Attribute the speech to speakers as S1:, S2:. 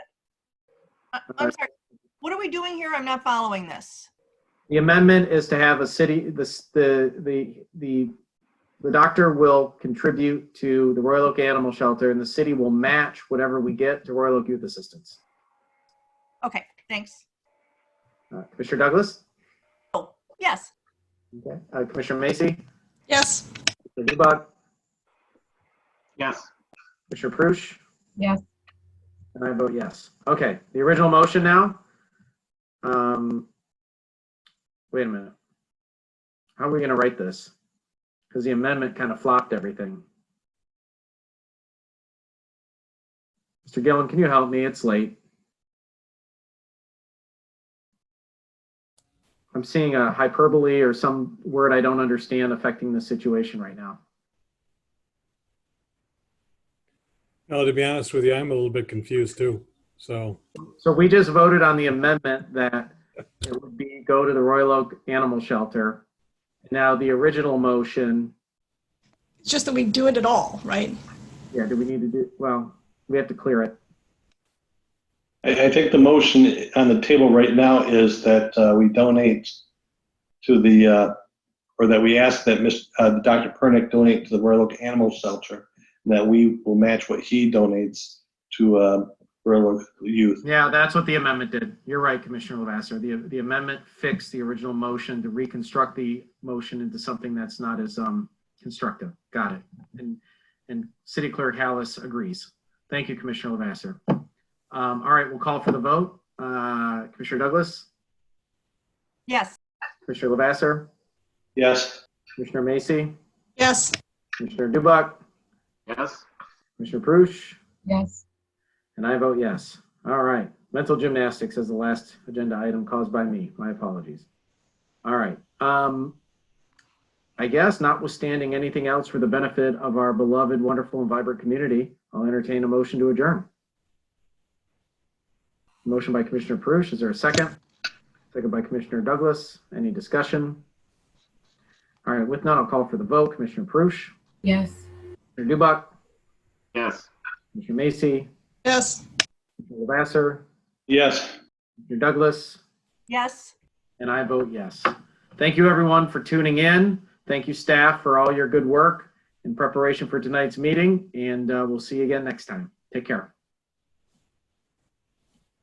S1: I- Uh, I'm sorry. What are we doing here? I'm not following this.
S2: The amendment is to have a city, the, s- the, the, the, the doctor will contribute to the Royal Oak Animal Shelter and the city will match whatever we get to Royal Oak Youth Assistance.
S1: Okay, thanks.
S2: Uh, Commissioner Douglas?
S1: Oh, yes.
S2: Okay. Uh, Commissioner Macy?
S3: Yes.
S2: Commissioner Dubak?
S4: Yes.
S2: Commissioner Prush?
S5: Yes.
S2: And I vote yes. Okay, the original motion now. Um, wait a minute. How are we gonna write this? Because the amendment kind of flopped everything. Mr. Gillen, can you help me? It's late. I'm seeing a hyperbole or some word I don't understand affecting the situation right now.
S6: No, to be honest with you, I'm a little bit confused too. So,
S2: So we just voted on the amendment that it would be go to the Royal Oak Animal Shelter. Now, the original motion,
S3: It's just that we do it at all, right?
S2: yeah, do we need to do, well, we have to clear it.
S7: I, I think the motion on the table right now is that uh, we donate to the, uh, or that we ask that Ms., uh, Dr. Pernick donate to the Royal Oak Animal Shelter, and that we will match what he donates to uh, Royal Oak Youth.
S2: Yeah, that's what the amendment did. You're right, Commissioner Lavasser. The, the amendment fixed the original motion to reconstruct the motion into something that's not as, um, constructive. Got it. And, and City Clerk Hallis agrees. Thank you, Commissioner Lavasser. Um, all right, we'll call for the vote. Uh, Commissioner Douglas,
S1: Yes.
S2: Commissioner Lavasser?
S7: Yes?
S2: Commissioner Macy,
S3: Yes.
S2: Commissioner Dubak,
S4: Yes.
S2: Commissioner Prush,
S5: Yes.
S2: and I vote yes. All right. Mental gymnastics is the last agenda item caused by me. My apologies. All right. Um, I guess notwithstanding anything else for the benefit of our beloved, wonderful, and vibrant community, I'll entertain a motion to adjourn. Motion by Commissioner Prush. Is there a second? Second by Commissioner Douglas. Any discussion? All right. With none, I'll call for the vote. Commissioner Prush,
S5: Yes.
S2: Commissioner Dubak,
S4: Yes.
S2: Commissioner Macy,
S3: Yes.
S2: Commissioner Lavasser,
S7: Yes.
S2: Commissioner Douglas,
S1: Yes.
S2: and I vote yes. Thank you, everyone, for tuning in. Thank you, staff, for all your good work in preparation for tonight's meeting, and uh, we'll see you again next time. Take care.